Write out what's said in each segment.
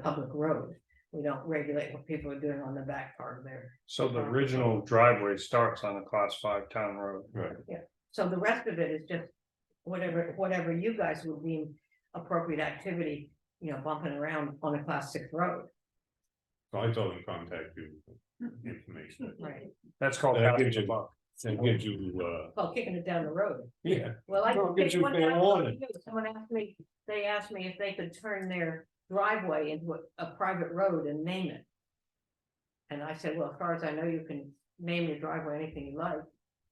public road. We don't regulate what people are doing on the back part of there. So the original driveway starts on a class five town road. Right. So the rest of it is just whatever, whatever you guys would deem appropriate activity, you know, bumping around on a class six road. So I told him contact you. with Information. Right. That's called. That passing gives the you- buck. And gives you, uh, Well, kicking it down the road. yeah, Well, I. Well, it gives you one fair time, warning. Someone asked me, they asked me if they could turn their driveway into a- a private road and name it. And I said, well, as far as I know, you can name your driveway anything you like,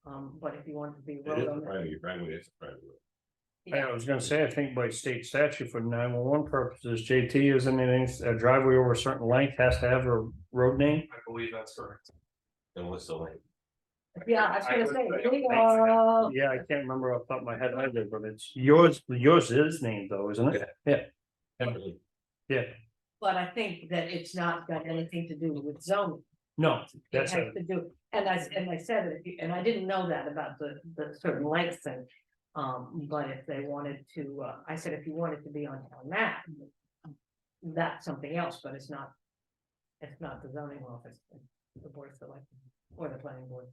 um, but if you want it to be a it is road a on it. private, right, it's a private. road. Yeah, I was gonna say, I think by state statute for nine one one purposes, JT isn't it, a driveway over a certain length has to have a road name? I believe that's correct. And what's the length? Yeah, I was I gonna would say, say I we think so. are- Yeah, I can't remember off the top of my head either, but it's yours, yours is named though, isn't it? Yeah, but I think that it's not got anything to do with zoning. no, It that's, has a- to do, and I, and I said, if you- and I didn't know that about the, the certain lengths and. Um, but if they wanted to, uh, I said, if you wanted to be on town map. That's something else, but it's not. It's not the zoning office, the board of select, or the planning board.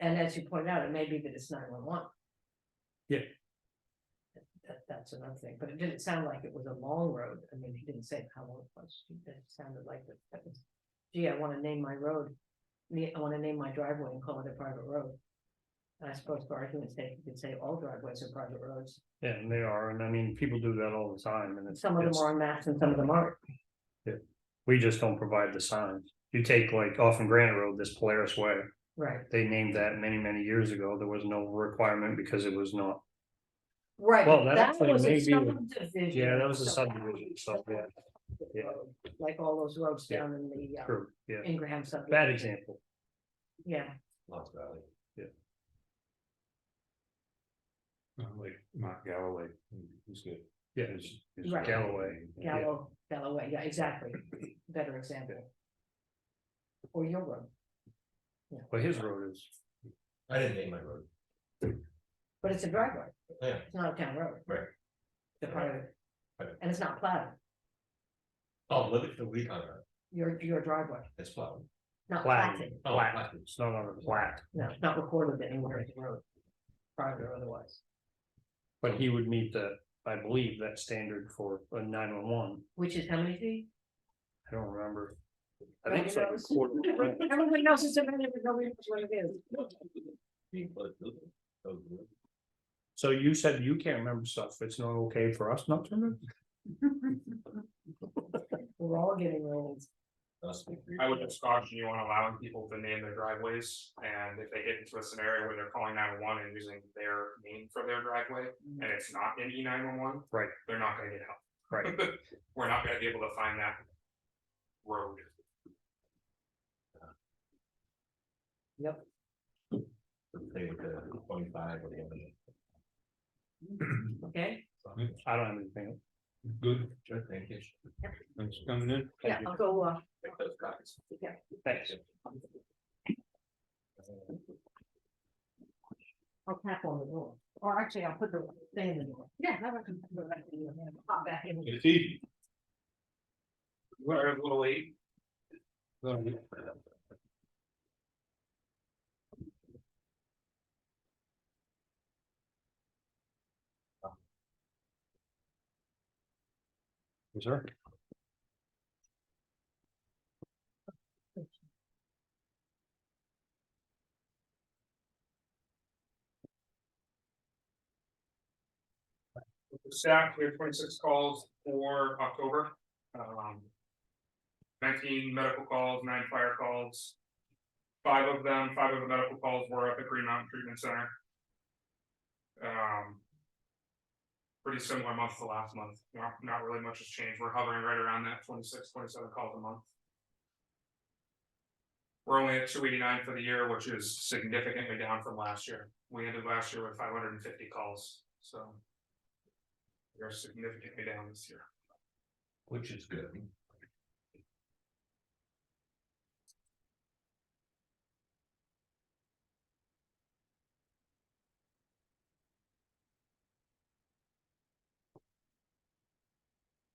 And as you pointed out, it may be that it's nine one one. Yeah. That, that's another thing, but it didn't sound like it was a long road, I mean, he didn't say how long it was, it sounded like that- that was. Gee, I wanna name my road, me, I wanna name my driveway and call it a private road. And I suppose for argument's sake, you could say all driveways are private roads, yeah, and they are, and I mean, people do that all the time and it's. some of them it's- are on maps and some of them aren't. We just don't provide the signs. You take like off in Granite Road, this Polaris Way, Right. they named that many, many years ago. There was no requirement because it was not. Right. Well, that that actually was a may be- subdivision, Yeah, that was a so- subdivision, so, yeah. Yeah. Like all those roads Yeah. down in the, uh, True, yeah, Ingraham subdivision. bad example. Yeah, Lost Valley. Yeah. Not Like Mark Galloway, who's good. Yeah, Is- is Right. Galloway. Yeah. Gallo, Galloway, yeah, exactly, better example. Or your road, but his road is, I didn't name my road, but it's a driveway, yeah, it's not a town road. Right. It's a private, Right. and it's not plowed, oh, Livingston Week on it, your, your driveway, it's plowed. not Plowed. platted, Oh, Flat. I- it's not on a plat, no, it's not recorded anywhere as a road. Private or otherwise, but he would meet the, I believe, that standard for a nine one one. which is how many feet? I don't remember. I think it's like a Nobody knows. quarter. of a mile. Everybody knows it's a minute, but nobody knows what it is. Being close to it. So good. So you said you can't remember stuff. It's not okay for us not to remember? We're all getting old, That's good. I would just caution you on allowing people to name their driveways, and if they get into a scenario where they're calling nine one one and using their name for their driveway, and it's not in E nine one one. Right. They're not gonna get help. Right. We're not gonna be able to find that road. They were the twenty-five or the other. okay? I don't have anything. Good, Sure, thank you. thanks for coming in. Yeah, I'll go, uh, Take those guys. Thanks. I'll tap on the door, or actually, I'll put the thing in the door. Yeah. that would come- go back in the door, Pop back in. It's easy. We're a little late. Sir? Staff, we have twenty-six calls for October. Um. Nineteen medical calls, nine fire calls. Five of them, five of the medical calls were at the Green Mountain Treatment Center. Um. Pretty similar month to last month, not, not really much has changed, we're hovering right around that 26, 27 calls a month. We're only at two eighty-nine for the year, which is significantly down from last year, we ended last year with five hundred and fifty calls, so. We are significantly down this year. Which is good.